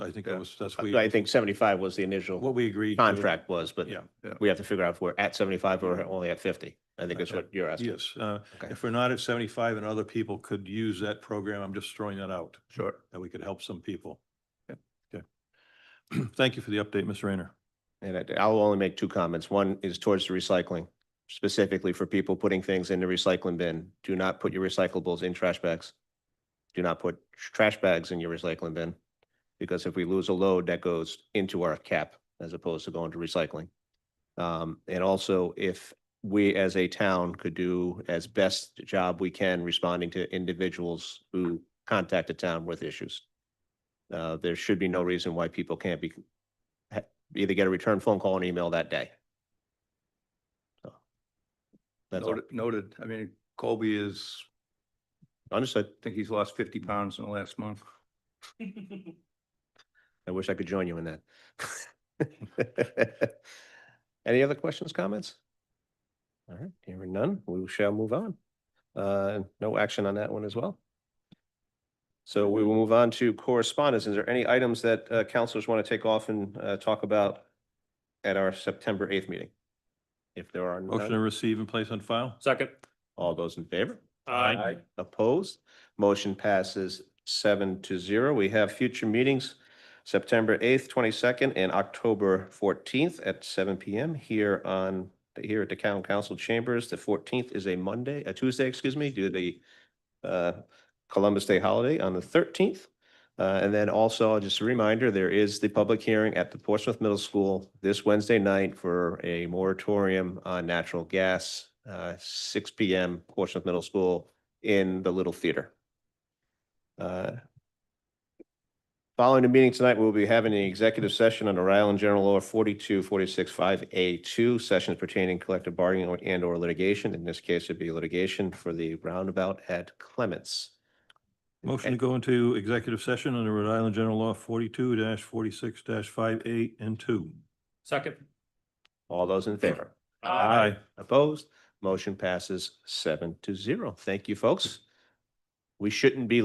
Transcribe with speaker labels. Speaker 1: I think that
Speaker 2: Yeah.
Speaker 1: was, that's we,
Speaker 3: I think seventy-five was the initial
Speaker 1: what we agreed. to.
Speaker 3: Uh, contract was, but
Speaker 1: Yeah, yeah.
Speaker 3: we have to figure out if we're at seventy-five or only at fifty. I think that's
Speaker 1: Okay.
Speaker 3: what you're asking.
Speaker 1: Yes, uh,
Speaker 3: Okay.
Speaker 1: if we're not at seventy-five and other people could use that program, I'm just throwing that out,
Speaker 2: Sure.
Speaker 1: that we could help some people. Okay. Thank you for the update, Ms. Rayner.
Speaker 3: And I- I'll only make two comments. One is towards the recycling, specifically for people putting things in the recycling bin. Do not put your recyclables in trash bags. Do not put tr- trash bags in your recycling bin, because if we lose a load, that goes into our cap as opposed to going to recycling. Um, and also if we as a town could do as best job we can responding to individuals who contact the town with issues. Uh, there should be no reason why people can't be either get a return phone call and email that day. So That's all.
Speaker 2: Noted, noted. I mean, Colby is,
Speaker 3: Understood.
Speaker 2: I think he's lost fifty pounds in the last month.
Speaker 3: I wish I could join you in that. Any other questions, comments? All right, hearing none, we shall move on. Uh, no action on that one as well. So we will move on to correspondence. Is there any items that uh, counselors want to take off and uh, talk about at our September eighth meeting? If there are
Speaker 1: Motion to
Speaker 3: none,
Speaker 1: receive and place on file?
Speaker 4: Second.
Speaker 3: all those in favor?
Speaker 4: Aye.
Speaker 3: Opposed? Motion passes seven to zero. We have future meetings, September eighth, twenty-second, and October fourteenth at seven PM here on, here at the Town Council Chambers. The fourteenth is a Monday, a Tuesday, excuse me, due to the uh, Columbus Day holiday on the thirteenth. Uh, And then also, just a reminder, there is the public hearing at the Portsmouth Middle School this Wednesday night for a moratorium on natural gas, uh, six PM, Portsmouth Middle School in the Little Theater. Uh, Following the meeting tonight, we'll be having an executive session under Rhode Island General Law forty-two, forty-six, five, A two, sessions pertaining collective bargaining or- and or litigation. In this case, it'd be litigation for the roundabout at Clements.
Speaker 1: Motion to go into executive session under Rhode Island General Law forty-two forty-six five eight and two.
Speaker 4: Second.
Speaker 3: All those in favor?
Speaker 1: Aye.
Speaker 3: Opposed? Motion passes seven to zero. Thank you, folks. We shouldn't be